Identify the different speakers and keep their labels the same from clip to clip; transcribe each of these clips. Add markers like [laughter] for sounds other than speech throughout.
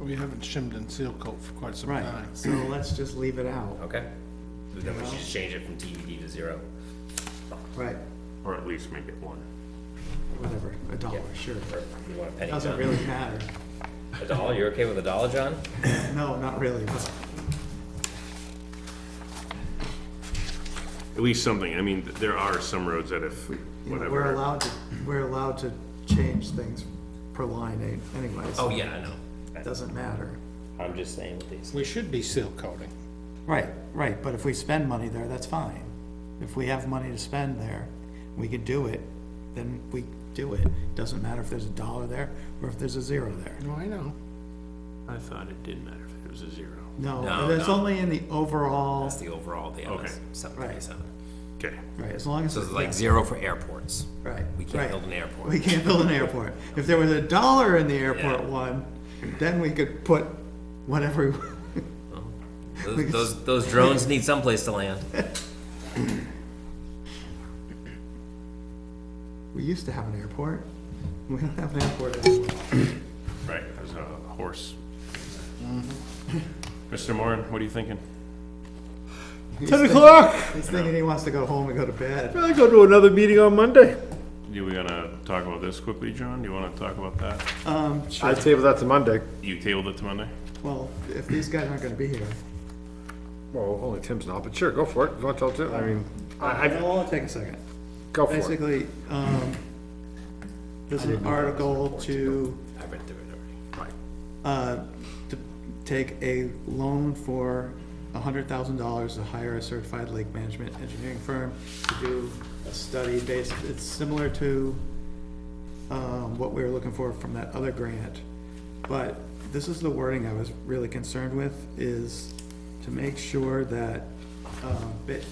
Speaker 1: We haven't shimmed and seal coat for quite some
Speaker 2: Right,
Speaker 1: time.
Speaker 2: Uh, so let's just leave it out,
Speaker 3: Okay. Then we should just change it from TBD to zero.
Speaker 2: right,
Speaker 4: or at least make it one.
Speaker 2: whatever, a dollar, sure.
Speaker 3: Or you want a penny,
Speaker 2: Doesn't
Speaker 3: John?
Speaker 2: really matter.
Speaker 3: A dollar, you're okay with a dollar, John?
Speaker 2: No, not really, but
Speaker 4: At least something, I mean, th- there are some roads that if,
Speaker 2: you know, we're
Speaker 4: whatever,
Speaker 2: allowed to, we're allowed to change things per line eh, anyways.
Speaker 3: Oh, yeah, I know.
Speaker 2: It Doesn't matter.
Speaker 3: I'm just saying with these.
Speaker 1: We should be seal coating.
Speaker 2: Right, right, but if we spend money there, that's fine. If we have money to spend there, we could do it, then we do it. Doesn't matter if there's a dollar there or if there's a zero there.
Speaker 1: No, I know.
Speaker 4: I thought it didn't matter if it was a zero.
Speaker 2: No,
Speaker 3: No,
Speaker 2: that's
Speaker 3: no.
Speaker 2: only in the overall,
Speaker 3: That's the overall, the
Speaker 4: Okay.
Speaker 3: MS seven twenty-seven.
Speaker 4: Okay,
Speaker 2: right, as long as,
Speaker 3: So it's like zero for airports.
Speaker 2: right,
Speaker 3: We can't build an
Speaker 2: right.
Speaker 3: airport.
Speaker 2: We can't
Speaker 5: [laughs]
Speaker 2: build an airport. If there was a dollar in the airport
Speaker 3: Yeah.
Speaker 2: one, then we could put whatever,
Speaker 3: Those, those, those drones need someplace to land.
Speaker 2: [laughs] we used to have an airport. We don't have an airport anymore.
Speaker 4: right, as a horse.
Speaker 2: Mm-hmm.
Speaker 4: Mr. Moran, what are you thinking?
Speaker 1: Ten o'clock!
Speaker 2: He's thinking he wants to go home and go to bed.
Speaker 1: I go to another meeting on Monday.
Speaker 4: Do we gonna talk about this quickly, John? Do you wanna talk about that?
Speaker 2: Um,
Speaker 5: I table that to Monday.
Speaker 4: You tabled it to Monday?
Speaker 2: well, if these guys aren't gonna be here.
Speaker 5: Well, only Tim's not, but sure, go for it. You want to tell Tim? I mean, I, I,
Speaker 2: Well, I'll take a second.
Speaker 5: go for it.
Speaker 2: Basically, um, there's an article to,
Speaker 3: I read through it already.
Speaker 2: uh, to take a loan for a hundred thousand dollars to hire a certified lake management engineering firm to do a study based, it's similar to, um, what we were looking for from that other grant. But this is the wording I was really concerned with, is to make sure that, um, bit,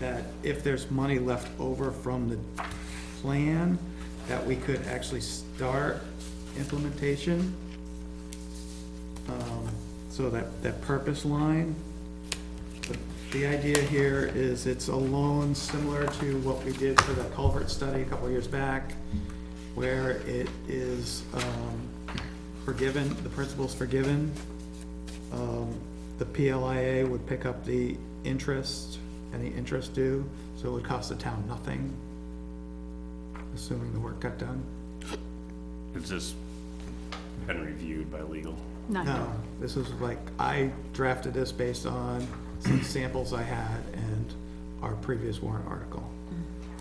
Speaker 2: that if there's money left over from the plan, that we could actually start implementation. Um, So that, that purpose line. The- The idea here is it's a loan similar to what we did for the culvert study a couple years back, where it is um, forgiven, the principal's forgiven. Um, The PLIA would pick up the interest, any interest due, so it would cost the town nothing, assuming the work got done.
Speaker 4: It's just been reviewed by legal.
Speaker 2: No, this was like, I drafted this based on some samples I had and our previous warrant article.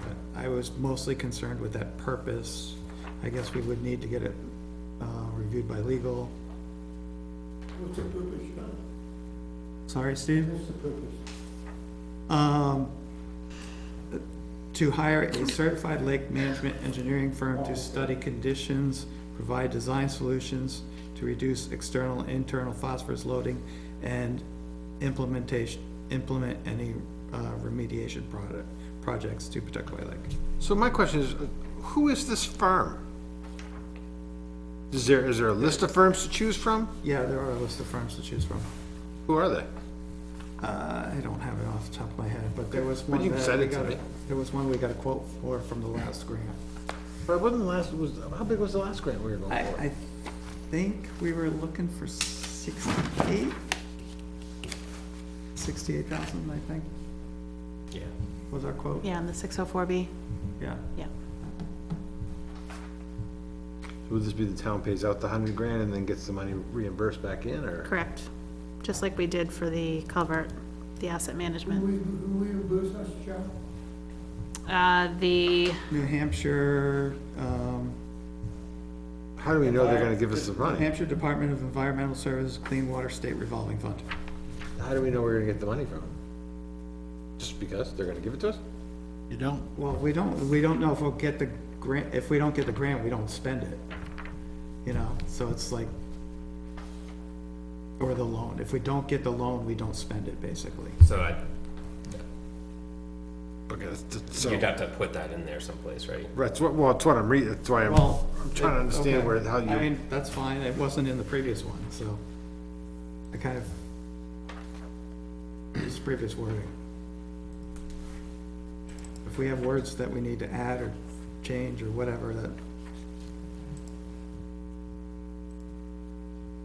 Speaker 2: But I was mostly concerned with that purpose. I guess we would need to get it, uh, reviewed by legal. What's the purpose, Sorry, Steve? What's the purpose? Um, to hire a certified lake management engineering firm to study conditions, provide design solutions to reduce external, and internal phosphorus loading, and implementation, implement any uh, remediation product, projects to Pawtucket Lake.
Speaker 5: So my question is, who is this firm? Is there, is there a list of firms to choose from?
Speaker 2: Yeah, there are a list of firms to choose from.
Speaker 5: Who are they?
Speaker 2: Uh, I don't have it off the top of my head, but there was
Speaker 5: Well,
Speaker 2: one
Speaker 5: you can
Speaker 2: that
Speaker 5: send
Speaker 2: we
Speaker 5: it to
Speaker 2: got, a-
Speaker 5: me.
Speaker 2: there was one we got a quote for from the last grant.
Speaker 5: But it wasn't the last, was, how big was the last grant we were
Speaker 2: I,
Speaker 5: going for?
Speaker 2: I think we were looking for sixty-eight? Sixty-eight thousand, I think,
Speaker 3: Yeah.
Speaker 2: was our quote.
Speaker 6: Yeah, on the 604B,
Speaker 2: Yeah.
Speaker 6: yeah.
Speaker 5: Would this be the town pays out the hundred grand and then gets the money reimbursed back in, or?
Speaker 6: Correct. Just like we did for the culvert, the asset management. Uh, the,
Speaker 2: New Hampshire, um,
Speaker 5: How do we know they're gonna give us the
Speaker 2: New
Speaker 5: money?
Speaker 2: Hampshire Department of Environmental Services Clean Water State Revolving Fund.
Speaker 5: How do we know we're gonna get the money from? Just because they're gonna give it to us?
Speaker 1: You don't?
Speaker 2: Well, we don't, we don't know if we'll get the grant, if we don't get the grant, we don't spend it. You know, so it's like, or the loan. If we don't get the loan, we don't spend it, basically.
Speaker 3: So I,
Speaker 5: Okay, that's- that's- so,
Speaker 3: you'd have to put that in there someplace, right?
Speaker 5: right, it's what- well, it's what I'm reading, that's why I'm,
Speaker 2: Well,
Speaker 5: I'm trying to understand
Speaker 2: okay.
Speaker 5: where, how you.
Speaker 2: I mean, that's fine, it wasn't in the previous one, so I kind of, it's previous wording. If we have words that we need to add or change or whatever, that